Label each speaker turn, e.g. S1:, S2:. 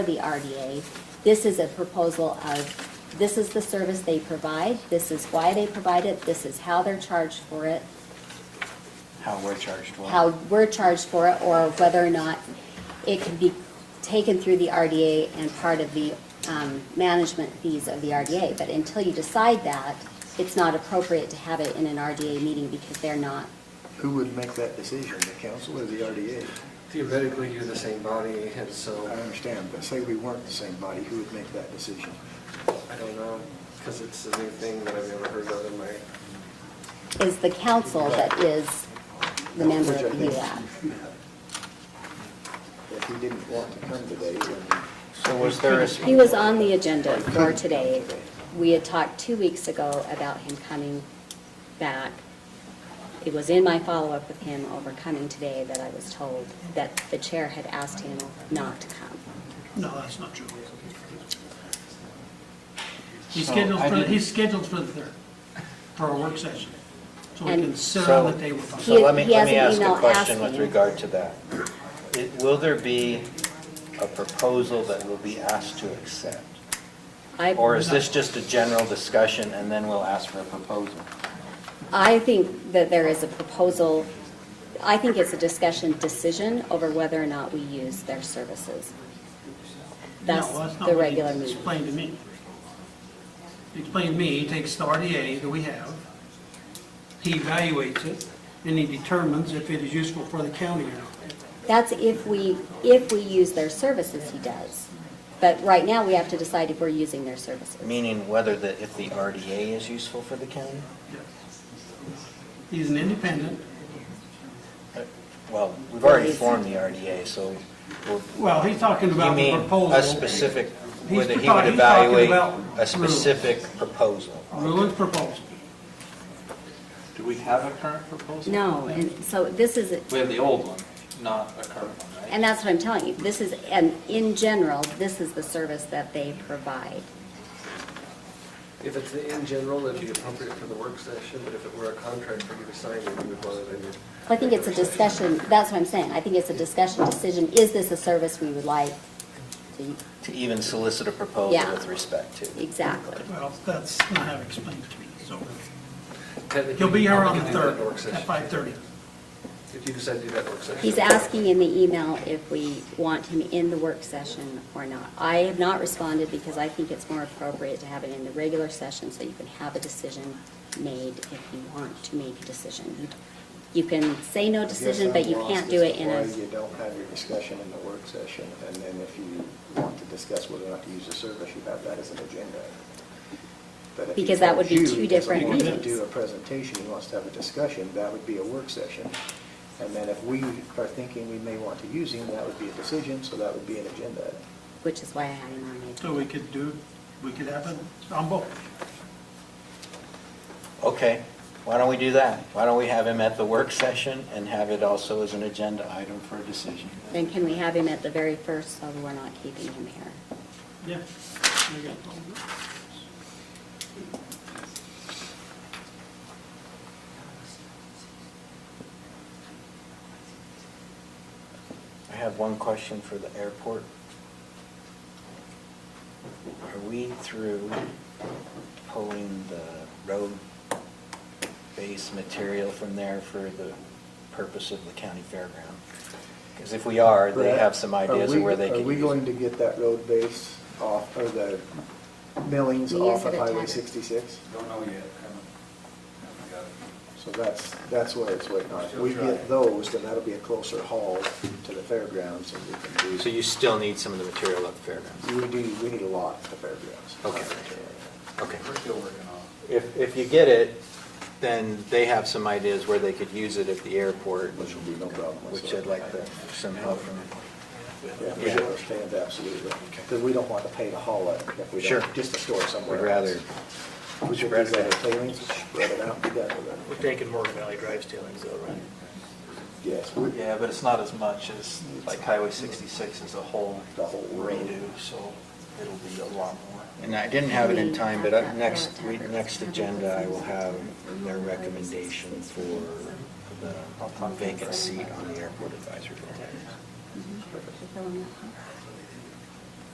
S1: for the RDA. This is a proposal of, this is the service they provide, this is why they provide it, this is how they're charged for it,
S2: How we're charged for it.
S1: how we're charged for it, or whether or not it can be taken through the RDA and part of the um, management fees of the RDA. But until you decide that, it's not appropriate to have it in an RDA meeting because they're not.
S3: Who would make that decision, the council or the RDA?
S4: Theoretically, you're the same body, and
S3: I
S4: so,
S3: understand, but say we weren't the same body, who would make that decision?
S4: I don't know, because it's a new thing that I've never heard of in my,
S1: Is the council that is the member
S3: Which I
S1: of the
S3: think-
S1: UAC.
S3: If he didn't want to come today, then
S2: So was there a,
S1: He was on the agenda for today. We had talked two weeks ago about him coming back. It was in my follow-up with him over coming today that I was told that the chair had asked him not to come.
S5: No, that's not true. He's
S2: So,
S5: scheduled
S2: I
S5: for,
S2: didn't-
S5: he's scheduled for the third, for a work session. So we can
S1: And-
S5: sit
S2: so,
S5: on the table. with
S2: so
S5: him.
S1: He-
S2: let me,
S1: he
S2: let me
S1: has
S2: ask
S1: an
S2: a
S1: email
S2: question with
S1: asking.
S2: regard to that. It- Will there be a proposal that will be asked to accept?
S1: I-
S2: Or is this just a general discussion and then we'll ask for a proposal?
S1: I think that there is a proposal, I think it's a discussion decision over whether or not we use their services. That's
S5: No, not
S1: the
S5: what he
S1: regular meeting.
S5: Explained to me. He Explained to me, he takes the RDA that we have, he evaluates it, and he determines if it is useful for the county or not.
S1: That's if we, if we use their services, he does. But right now, we have to decide if we're using their services.
S2: Meaning whether the, if the RDA is useful for the county?
S5: He's an independent,
S2: Well, we've already formed the RDA, so we'll
S5: well, he's talking
S2: You
S5: about the
S2: mean
S5: proposal.
S2: a specific,
S5: He's
S2: whether he would
S5: talking- he's talking
S2: evaluate
S5: about
S2: a specific proposal?
S5: Ruland's proposal.
S6: Do we have a current proposal?
S1: No, and so this is,
S6: We have the old one, not a current one, right?
S1: and that's what I'm telling you, this is, and in general, this is the service that they provide.
S4: if it's in general, it'd be appropriate for the work session, but if it were a contract for you to sign, then you would want it in your.
S1: I think it's a discussion, that's what I'm saying, I think it's a discussion decision, is this a service we would like? to-
S2: To even solicit a proposal
S1: Yeah.
S2: with respect to?
S1: Exactly.
S5: Well, that's not how it explained to me, so.
S4: Technically,
S5: He'll be here on
S4: you
S5: the
S4: could do that
S5: third,
S4: in a work
S5: at
S4: session.
S5: 5:30.
S4: If you decide to do that work session.
S1: He's asking in the email if we want him in the work session or not. I have not responded because I think it's more appropriate to have it in the regular session so you can have a decision made if you want to make a decision. You- You can say no
S3: I guess
S1: decision, but
S3: I'm
S1: you
S3: lost
S1: can't
S3: as
S1: do
S3: to
S1: it in
S3: Why you
S1: a,
S3: don't have your discussion in the work session, and then if you want to discuss whether or not to use the service, you have that as an agenda. But if he
S1: Because that would be
S3: told
S1: two
S3: you he
S1: different
S3: doesn't want to
S1: meetings.
S3: do a presentation, he wants to have a discussion, that would be a work session. And then if we are thinking we may want to use him, that would be a decision, so that would be an agenda.
S1: which is why I had him on the
S5: So
S1: agenda.
S5: we could do, we could have it on both.
S2: Okay, why don't we do that? Why don't we have him at the work session and have it also as an agenda item for a decision?
S1: Then can we have him at the very first so we're not keeping him here?
S5: Yeah.
S2: I have one question for the airport. Are we through pulling the road base material from there for the purpose of the county fairground? Because if we are, they have some
S3: Brad, are
S2: ideas
S3: we-
S2: of where they
S3: Are
S2: could
S3: we
S2: use
S3: going
S2: it.
S3: to get that road base off, or the millings
S1: We use
S3: off
S1: it
S3: of
S1: at
S3: Highway
S1: Taggart.
S3: 66?
S7: Don't know yet, haven't, haven't got it.
S3: So that's, that's what it's waiting on. If
S7: Still
S3: we get
S7: trying.
S3: those, then that'll be a closer haul to the fairgrounds and we can do.
S2: So you still need some of the material at the fairgrounds?
S3: We do, we need a lot at the fairgrounds.
S2: Okay. Okay.
S7: We're still working on
S2: If, if you get it, then they have some ideas where they could use it at the airport.
S3: Which will be no problem
S2: Which I'd
S3: whatsoever.
S2: like to, some help from
S3: Yeah, we
S2: Yeah.
S3: understand absolutely, because we don't want to pay to haul it if we
S2: Sure.
S3: don't, just to store it somewhere.
S2: We'd rather
S3: else. We should
S2: spread
S3: use
S2: it
S3: that
S2: out.
S3: tailings, spread it out, and be done with it.
S8: We're taking Morgan Valley Drive's tailings though, right?
S3: Yes, we-
S6: Yeah, but it's not as much as, like Highway 66 as a whole
S3: The whole road.
S6: redo, so it'll be a lot more.
S2: And I didn't have it in time, but up next, we- next agenda, I will have their recommendation for the vacant seat on the airport advisory board.
S1: Mhm.